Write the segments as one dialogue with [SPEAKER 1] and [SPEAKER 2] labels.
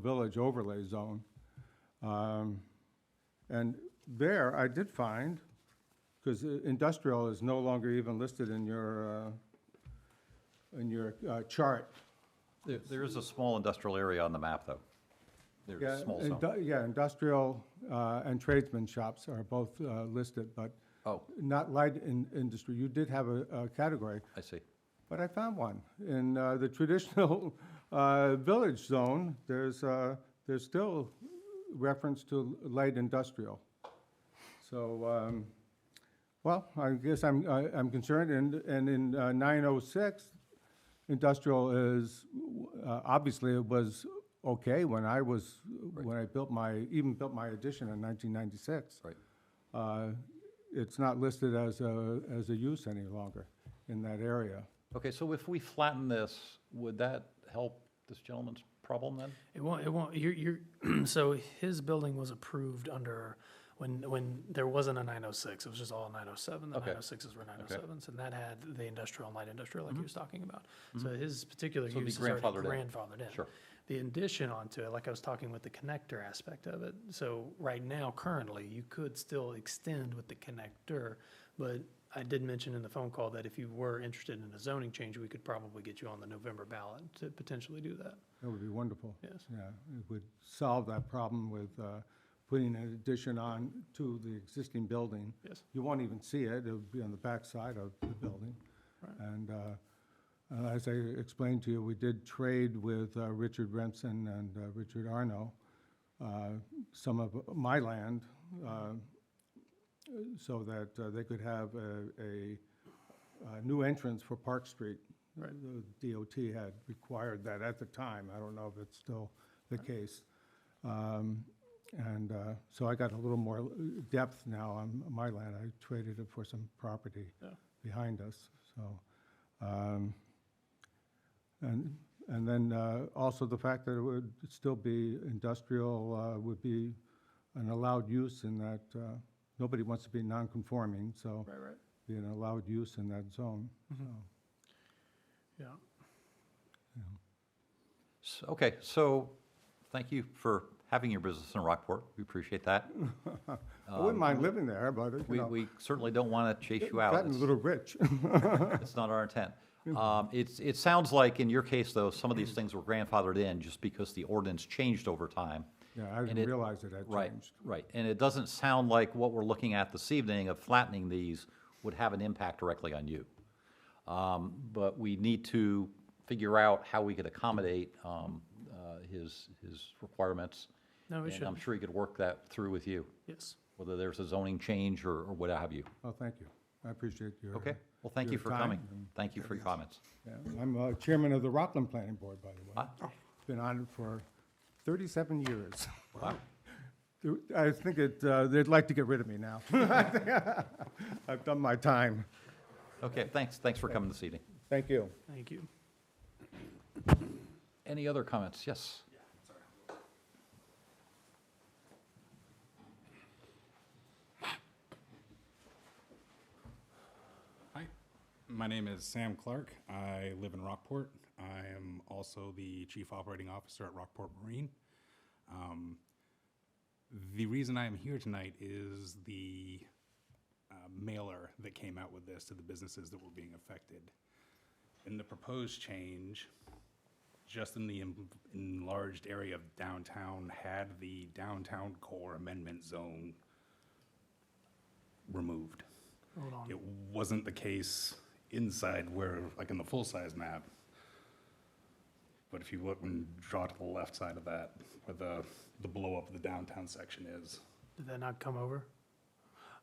[SPEAKER 1] village overlay zone. Um, And there, I did find, because industrial is no longer even listed in your, uh, in your uh, chart.
[SPEAKER 2] There, there is a small industrial area on the map, though. There's
[SPEAKER 1] Yeah,
[SPEAKER 2] a small zone.
[SPEAKER 1] indu- Yeah, industrial uh, and tradesman shops are both uh, listed, but
[SPEAKER 2] Oh,
[SPEAKER 1] not light in- industry. You did have a a category.
[SPEAKER 2] I see.
[SPEAKER 1] But I found one. In uh, the traditional uh, village zone, there's, uh, there's still reference to light industrial. So, um, well, I guess I'm, I- I'm concerned, and, and in uh, 906, industrial is, uh, obviously it was okay when I was, when I built my, even built my addition in 1996.
[SPEAKER 2] Right.
[SPEAKER 1] Uh, It's not listed as a, as a use any longer in that area.
[SPEAKER 2] Okay, so if we flatten this, would that help this gentleman's problem then?
[SPEAKER 3] It won't, it won't, you're, you're, so his building was approved under, when, when there wasn't a nine oh six, it was just all nine oh seven, the
[SPEAKER 2] Okay. Mm-hmm.
[SPEAKER 3] nine oh sixes were nine oh sevens, and that had the industrial and light industrial like he was talking about. So his particular
[SPEAKER 2] So it'd be
[SPEAKER 3] use is already
[SPEAKER 2] grandfathered in.
[SPEAKER 3] grandfathered in.
[SPEAKER 2] Sure.
[SPEAKER 3] The addition onto it, like I was talking with the connector aspect of it, so right now, currently, you could still extend with the connector, but I did mention in the phone call that if you were interested in a zoning change, we could probably get you on the November ballot to potentially do that,
[SPEAKER 1] That would be wonderful.
[SPEAKER 3] yes.
[SPEAKER 1] Yeah, it would solve that problem with uh, putting an addition on to the existing building.
[SPEAKER 3] Yes.
[SPEAKER 1] You won't even see it, it'll be on the backside of the building.
[SPEAKER 3] Right.
[SPEAKER 1] And uh, and as I explained to you, we did trade with uh, Richard Remsen and uh, Richard Arno uh, some of my land uh, so that uh, they could have a- a uh, new entrance for Park Street.
[SPEAKER 3] Right.
[SPEAKER 1] The DOT had required that at the time. I don't know if it's still the case. Um, And uh, so I got a little more depth now on my land. I traded it for some property
[SPEAKER 3] Yeah.
[SPEAKER 1] behind us, so. um, And, and then uh, also the fact that it would still be industrial uh, would be an allowed use in that, uh, nobody wants to be non-conforming, so
[SPEAKER 3] Right, right.
[SPEAKER 1] be an allowed use in that zone. so.
[SPEAKER 3] Yeah,
[SPEAKER 2] S- Okay, so, thank you for having your business in Rockport. We appreciate that.
[SPEAKER 1] I wouldn't mind living there, but, you
[SPEAKER 2] Uh, We,
[SPEAKER 1] know,
[SPEAKER 2] we certainly don't want to chase
[SPEAKER 1] it's
[SPEAKER 2] you out.
[SPEAKER 1] gotten a
[SPEAKER 2] It's-
[SPEAKER 1] little rich.
[SPEAKER 2] It's not our intent. Um, It's, it sounds like in your case, though, some of these things were grandfathered in just because the ordinance changed over time.
[SPEAKER 1] Yeah, I
[SPEAKER 2] And
[SPEAKER 1] didn't
[SPEAKER 2] it-
[SPEAKER 1] realize it had
[SPEAKER 2] Right,
[SPEAKER 1] changed.
[SPEAKER 2] right. And it doesn't sound like what we're looking at this evening of flattening these would have an impact directly on you. Um, But we need to figure out how we could accommodate um, uh, his, his requirements.
[SPEAKER 3] no, we
[SPEAKER 2] And I'm
[SPEAKER 3] should,
[SPEAKER 2] sure he could work that through with you,
[SPEAKER 3] yes.
[SPEAKER 2] whether there's a zoning change or or what have you.
[SPEAKER 1] Oh, thank you. I appreciate your.
[SPEAKER 2] Okay? Well, thank you
[SPEAKER 1] Your
[SPEAKER 2] for
[SPEAKER 1] time
[SPEAKER 2] coming.
[SPEAKER 1] and-
[SPEAKER 2] Thank you for your comments.
[SPEAKER 1] Yeah, I'm uh, chairman of the Rockland Planning Board, by the way.
[SPEAKER 2] Ah,
[SPEAKER 1] Been on it for 37 years.
[SPEAKER 2] Wow.
[SPEAKER 1] I think it, uh, they'd like to get rid of me now. I've done my time.
[SPEAKER 2] Okay, thanks, thanks for coming this evening.
[SPEAKER 1] Thank you.
[SPEAKER 3] Thank you.
[SPEAKER 2] Any other comments? Yes?
[SPEAKER 4] Hi, my name is Sam Clark. I live in Rockport. I am also the Chief Operating Officer at Rockport Marine. Um, The reason I am here tonight is the uh, mailer that came out with this to the businesses that were being affected. In the proposed change, just in the en- enlarged area of downtown, had the downtown core amendment zone removed.
[SPEAKER 3] Hold on.
[SPEAKER 4] It wasn't the case inside where, like in the full-size map. But if you look and draw to the left side of that, where the, the blow-up of the downtown section is,
[SPEAKER 3] Did that not come over?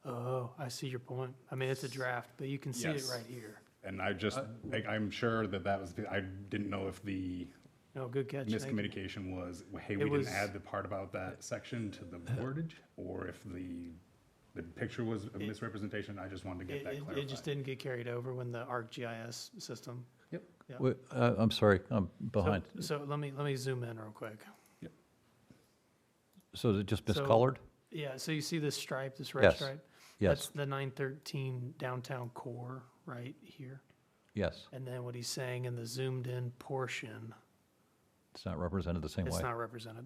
[SPEAKER 3] Oh, I see your point. I mean, it's a draft, but you can see it
[SPEAKER 4] Yes.
[SPEAKER 3] right here.
[SPEAKER 4] and I just,
[SPEAKER 3] Uh,
[SPEAKER 4] I- I'm sure that that was, the- I didn't know if the
[SPEAKER 3] No, good catch. Thank you.
[SPEAKER 4] miscommunication was, hey,
[SPEAKER 3] It
[SPEAKER 4] we
[SPEAKER 3] was- Uh-huh.
[SPEAKER 4] didn't add the part about that section to the wordage, or if the, the picture was a misrepresentation, I just wanted to get
[SPEAKER 3] It,
[SPEAKER 4] that
[SPEAKER 3] it- it just
[SPEAKER 4] clarified.
[SPEAKER 3] didn't get carried over when the ArcGIS system.
[SPEAKER 4] Yep.
[SPEAKER 3] Yeah.
[SPEAKER 2] Wait, uh, I'm sorry, I'm
[SPEAKER 3] So-
[SPEAKER 2] behind.
[SPEAKER 3] So let me, let me zoom in real quick.
[SPEAKER 2] So is it just
[SPEAKER 3] so-
[SPEAKER 2] miscolored?
[SPEAKER 3] Yeah, so you see this stripe, this red
[SPEAKER 2] Yes,
[SPEAKER 3] stripe? That's
[SPEAKER 2] Yes,
[SPEAKER 3] the nine thirteen downtown core right here.
[SPEAKER 2] yes.
[SPEAKER 3] And then what he's saying in the zoomed in portion,
[SPEAKER 2] It's not represented the same way.
[SPEAKER 3] it's not represented.